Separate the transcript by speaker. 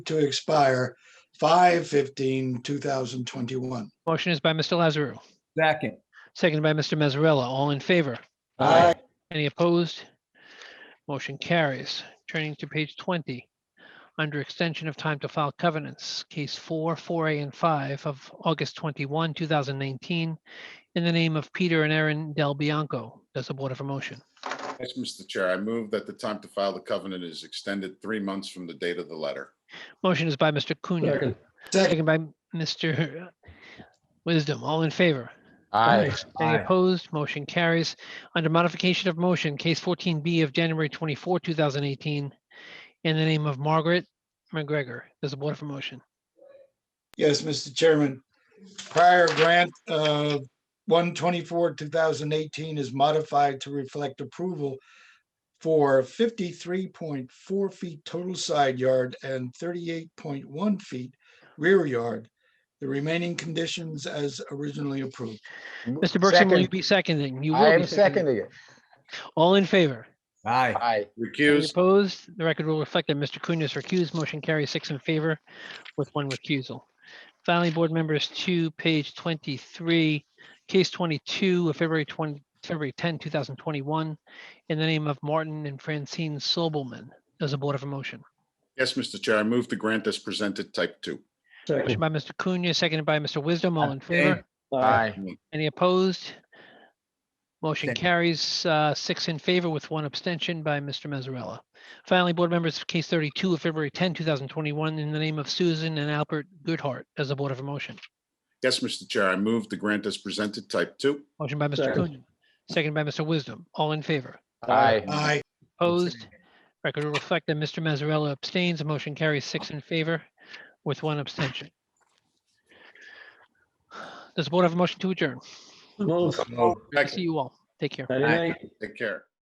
Speaker 1: to expire 5 2021
Speaker 2: Motion is by Mr. Lazaru,
Speaker 3: Second.
Speaker 2: seconded by Mr. Mazzarella. All in favor?
Speaker 1: Aye.
Speaker 2: Any opposed? Motion carries. Turning to page 20, under extension of time to file covenants, case 4, 4A and 5 of August 21, 2019, in the name of Peter and Erin Del Bianco. Does the board have a motion?
Speaker 4: Yes, Mr. Chair, I move that the time to file the covenant is extended three months from the date of the letter.
Speaker 2: Motion is by Mr. Cunha,
Speaker 3: Second.
Speaker 1: Second,
Speaker 2: seconded by Mr. Wisdom. All in favor?
Speaker 5: Aye.
Speaker 2: Any
Speaker 3: Aye.
Speaker 2: opposed? Motion carries. Under modification of motion, case fourteen B of January twenty-four, two thousand eighteen, in the name of Margaret McGregor, there's a board for motion.
Speaker 1: yes, Mr. Chairman. Prior grant of 124, 2018 is modified to reflect approval for 53.4 feet total side yard and 38.1 feet rear yard. The remaining conditions as originally approved.
Speaker 2: Mr. Bergson, will you
Speaker 5: Second.
Speaker 2: be seconding? You
Speaker 5: I
Speaker 2: will be
Speaker 5: am seconding it.
Speaker 2: All in favor?
Speaker 3: Aye.
Speaker 5: Aye.
Speaker 2: Any
Speaker 4: Recused,
Speaker 2: opposed? The record will reflect that Mr. Cunha is recused. Motion carries six in favor with one recusal. Finally, board members, to page twenty-three, case twenty-two of February twenty, February 10, 2021, in the name of Martin and Francine Sobelman. Does the board have a motion?
Speaker 4: yes, Mr. Chair, I move the grant as presented type two.
Speaker 2: Motion by Mr. Cunha, seconded by Mr. Wisdom. All in
Speaker 3: Abstain.
Speaker 2: favor?
Speaker 5: Aye.
Speaker 2: Any opposed? Motion
Speaker 3: Abstain.
Speaker 2: carries uh, six in favor with one abstention by Mr. Mazzarella. Finally, board members, case 32 of February 10, 2021, in the name of Susan and Albert Goodhart as a board of a motion.
Speaker 4: Yes, Mr. Chair, I move the grant as presented type two.
Speaker 2: Motion by Mr.
Speaker 5: Second.
Speaker 2: Coonan, second by Mr. Wisdom. All in favor?
Speaker 5: Aye.
Speaker 1: Aye.
Speaker 2: Opposed? Record will reflect that Mr. Mazzarella abstains. The motion carries six in favor with one abstention. Does the board have a motion to adjourn?
Speaker 6: Move.
Speaker 2: I See you all. Take care.
Speaker 6: Good night.
Speaker 4: Take care.